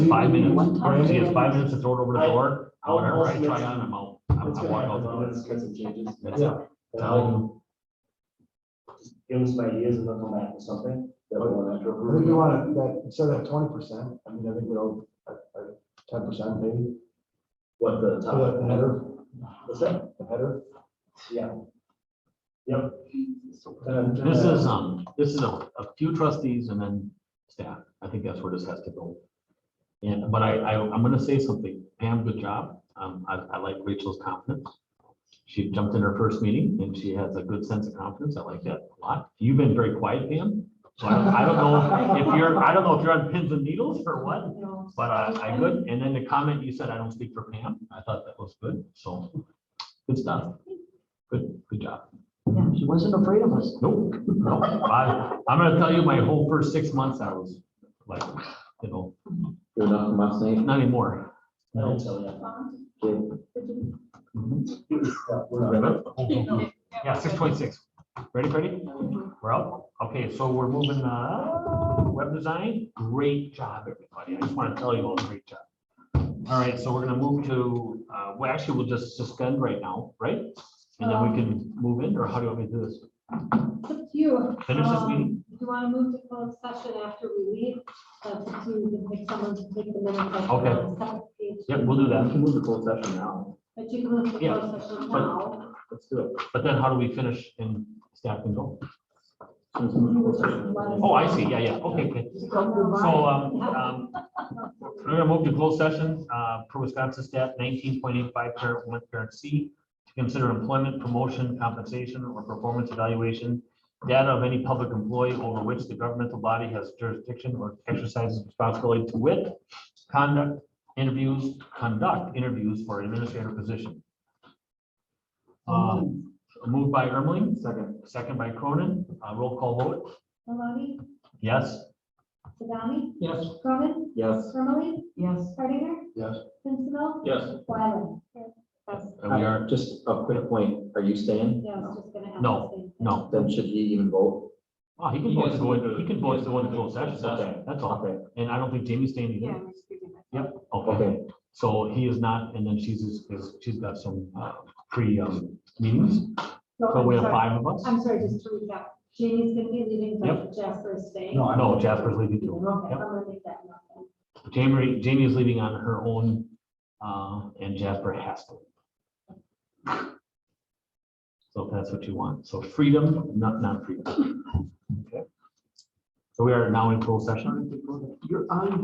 five minutes, One time. If you have five minutes to throw it over the door, I'll- I'll whatever I submit try some- on, I'm out. I It's I gonna walk happen, out though. the door. Let's cut some changes. That's it. Um, just Give us my ideas and they'll come back with something that we want to I think we approve. want to, that, instead of twenty percent, I mean, I think we're all, ten percent maybe, What the for the- the top, header, what's that? the header. Yeah. Yep. Uh, This is, um, this is a, a few trustees and then staff. I think that's where this has to go. And, but I, I, I'm gonna say something. Pam, good job. Um, I, I like Rachel's confidence. She jumped in her first meeting and she has a good sense of confidence. I like that a lot. You've been very quiet, Pam. So I don't, I don't know if you're, I don't know if you're on pins and needles or what. But I, I could, and then the comment you said, I don't speak for Pam, I thought that was good, so, good stuff. Good, good job. Yeah, she wasn't afraid of us. Nope, no, I, I'm gonna tell you, my whole first six months, I was like, you know, Good enough for my sake. not anymore. I don't tell you. Mhm. Yeah, we're not- Yeah, six twenty-six. Ready, Freddie? We're out? Okay, so we're moving, uh, web design, great job, everybody, I just wanna tell you all, great job. All right, so we're gonna move to, uh, well, actually, we'll just suspend right now, right? And then we can move in, or how do you want me to do this? It's up to you. Finish this Um, meeting. Do you want to move to closed session after we leave? That's up to you. You can pick someone to take the minutes. that's Okay. on the second page. Yep, we'll do I that, can move the closed session now. But you can move to Yeah, closed session but- now. Let's do it. but then how do we finish and staff can go? Let's move the closed session. Oh, I see, yeah, yeah, okay, okay. Just don't So, remind um, um, we're gonna move to closed session, uh, per Wisconsin stat nineteen point eight five, parent one, parent C, to consider employment, promotion, compensation, or performance evaluation, data of any public employee over which the governmental body has jurisdiction or exercises responsibility to wit, conduct, interviews, conduct interviews for administrative position. Um, moved by Ermeling, Second. second by Cronin, uh, roll call vote, Maloney, yes? Sadami, Yes. Cronin, Yes. Ermeling, Yes. Hardinger. Yes. Pincinel, Yes. Wyland. That's- And we are, Just a quick point. Are you staying? Yeah, I was just gonna ask. No, the same thing. no, Then should he even vote? oh, he can He voice has the to one, go to- he can he voice has the to one in go closed to- session, that's okay. all, that's all. And I don't think Jamie's staying either. Yep, okay, Okay. so he is not, and then she's, is- she's got some, uh, pre, um, meetings, so I'm we have sorry. five of us. I'm sorry, just to recap, Jamie's gonna be leaving, Yep. but Jasper is staying. No, no, Jasper's leaving Okay, too. I'm Yep. gonna make that note. then. Jamie, Jamie is leaving on her own, uh, and Jasper has to. So if that's what you want, so freedom, not, not freedom. Okay. So we are now in closed session. You're on